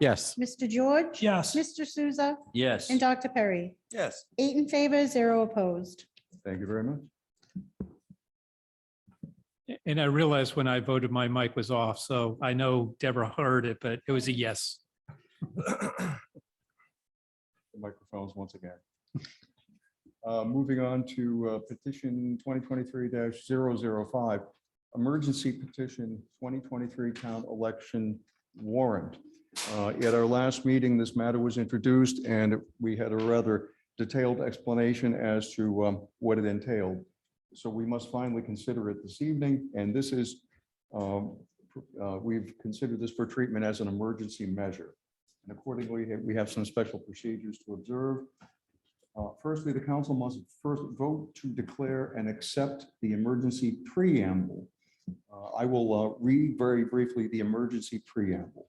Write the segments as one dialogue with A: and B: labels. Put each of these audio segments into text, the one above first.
A: Yes.
B: Mr. George?
C: Yes.
B: Mr. Souza
D: Yes.
B: and Dr. Perry.
D: Yes.
B: Eight in favor, zero opposed.
A: Thank you very much.
C: And I realized when I voted, my mic was off, so I know Deborah heard it, but it was a yes.
A: The Microphones once again. Uh, Moving on to uh, petition twenty twenty-three 5 emergency petition twenty twenty-three town election warrant. Uh, At our last meeting, this matter was introduced and we had a rather detailed explanation as to um, what it entailed. So we must finally consider it this evening, and this is, um, uh, we've considered this for treatment as an emergency measure. And accordingly, we have some special procedures to observe. Uh, Firstly, the council must first vote to declare and accept the emergency preamble. Uh, I will uh, read very briefly the emergency preamble.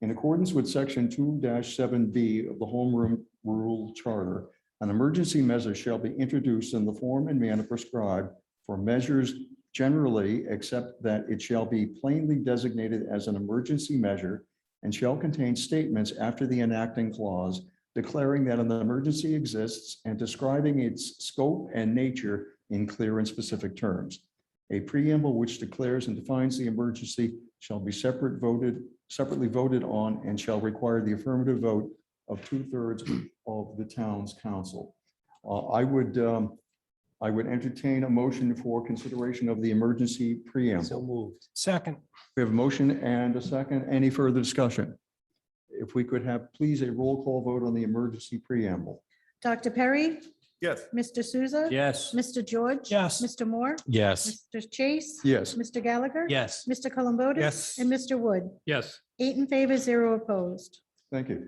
A: In accordance with section two seven B of the Home Room Rule Charter, an emergency measure shall be introduced in the form and manner prescribed for measures generally, except that it shall be plainly designated as an emergency measure and shall contain statements after the enacting clause declaring that an emergency exists and describing its scope and nature in clear and specific terms. A preamble which declares and defines the emergency shall be separate voted, separately voted on and shall require the affirmative vote of two-thirds of the town's council. Uh, I would, um, I would entertain a motion for consideration of the emergency preamble.
D: So moved.
C: Second.
A: We have a motion and a second. Any further discussion? If we could have, please, a roll call vote on the emergency preamble.
B: Dr. Perry,
D: Yes.
B: Mr. Souza?
D: Yes.
B: Mr. George?
C: Yes.
B: Mr. Moore?
D: Yes.
B: Mr. Chase?
A: Yes,
B: Mr. Gallagher?
D: Yes.
B: Mr. Columbotus?
D: Yes.
B: And Mr. Wood?
C: Yes.
B: Eight in favor, zero opposed.
A: thank you.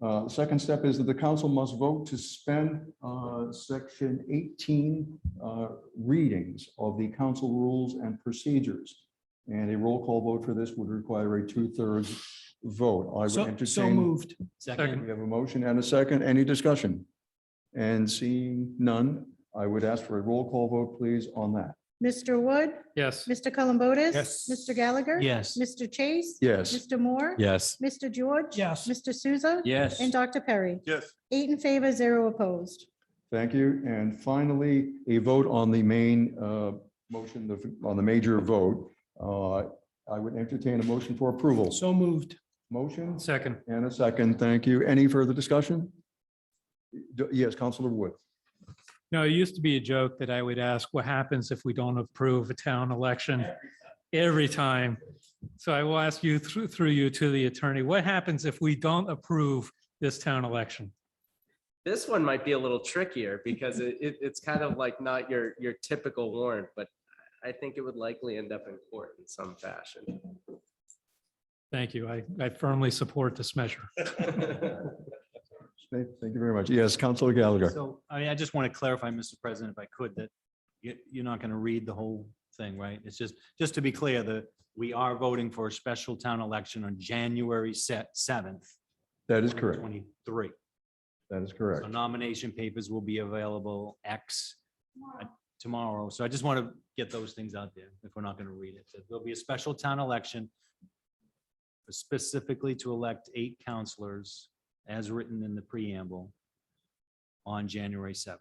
A: Uh, Second step is that the council must vote to suspend uh, section 18 uh, readings of the council rules and procedures. And a roll call vote for this would require a two-thirds vote. I would
E: So,
A: entertain.
E: so moved.
C: Second.
A: We have a motion and a second. Any discussion? And seeing none, I would ask for a roll call vote, please, on that.
B: Mr. Wood?
C: Yes.
B: Mr. Columbotus?
D: Yes.
B: Mr. Gallagher?
D: Yes.
B: Mr. Chase?
A: Yes,
B: Mr. Moore?
D: Yes.
B: Mr. George?
E: Yes.
B: Mr. Souza?
D: Yes.
B: And Dr. Perry.
D: Yes.
B: Eight in favor, zero opposed.
A: thank you. And finally, a vote on the main uh, motion, the- on the major vote. Uh, I would entertain a motion for approval.
E: So moved.
A: Motion
C: Second.
A: and a second. Thank you. Any further discussion? D- Yes, Counselor Wood.
C: No, it used to be a joke that I would ask, what happens if we don't approve a town election every time? So I will ask you through, through you to the attorney, what happens if we don't approve this town election?
F: This one might be a little trickier because it, it, it's kind of like not your, your typical warrant, but I think it would likely end up in court in some fashion.
C: Thank you. I, I firmly support this measure.
A: Thank thank you very much. Yes, Counselor Gallagher.
E: So I mean, I just want to clarify, Mr. President, if I could, that you, you're not going to read the whole thing, right? It's just, just to be clear, that we are voting for a special town election on January set seventh.
A: That is correct.
E: Twenty-three.
A: That is
E: So
A: correct.
E: nomination papers will be available X uh, tomorrow. So I just want to get those things out there if we're not going to read it. That There'll be a special town election specifically to elect eight counselors as written in the preamble on January 7th.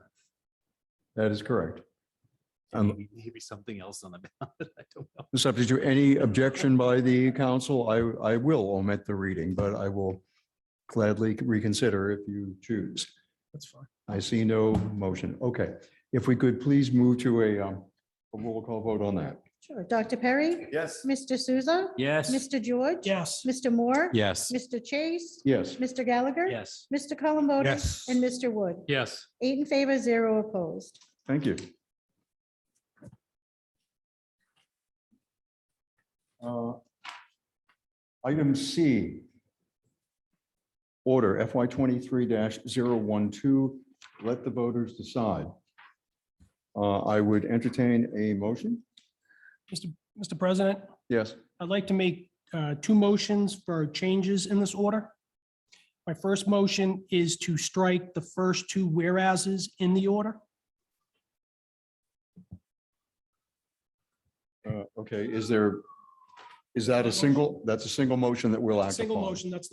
A: That is correct. Um,
E: Maybe maybe something else on the ballot. I don't know.
A: Subject to any objection by the council, I, I will omit the reading, but I will gladly reconsider if you choose.
E: That's fine.
A: I see no motion. Okay. If we could please move to a, um, a roll call vote on that.
B: Sure. Dr. Perry?
D: Yes.
B: Mr. Souza?
D: Yes.
B: Mr. George?
E: Yes.
B: Mr. Moore?
D: Yes.
B: Mr. Chase?
A: Yes,
B: Mr. Gallagher?
E: Yes.
B: Mr. Columbotus?
D: Yes.
B: And Mr. Wood?
C: Yes.
B: Eight in favor, zero opposed.
A: thank you. Uh, Item C. Order FY twenty-three 12 let the voters decide. Uh, I would entertain a motion.
G: Mr. President,
A: Yes,
G: I'd like to make uh, two motions for changes in this order. My first motion is to strike the first two whereases in the order.
A: uh, okay, is there
H: Is that a single, that's a single motion that we'll act upon?
A: Single motion, that's the